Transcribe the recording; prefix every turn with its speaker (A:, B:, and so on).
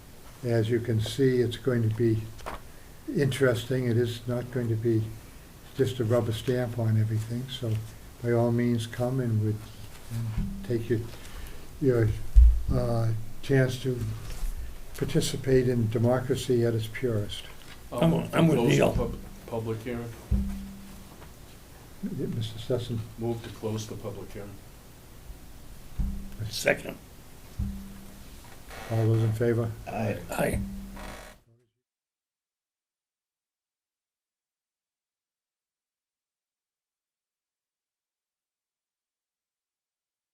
A: As you can see, it's going to be interesting. It is not going to be just a rubber stamp on everything, so by all means, come and would, and take your, your, uh, chance to participate in democracy at its purest.
B: I'll I'm- move to I'm with close the Neil.
C: Public hearing,
A: Yeah, Mr. Sessom?
C: move to close the public hearing.
B: Second.
A: All those in favor?
B: Aye. Aye.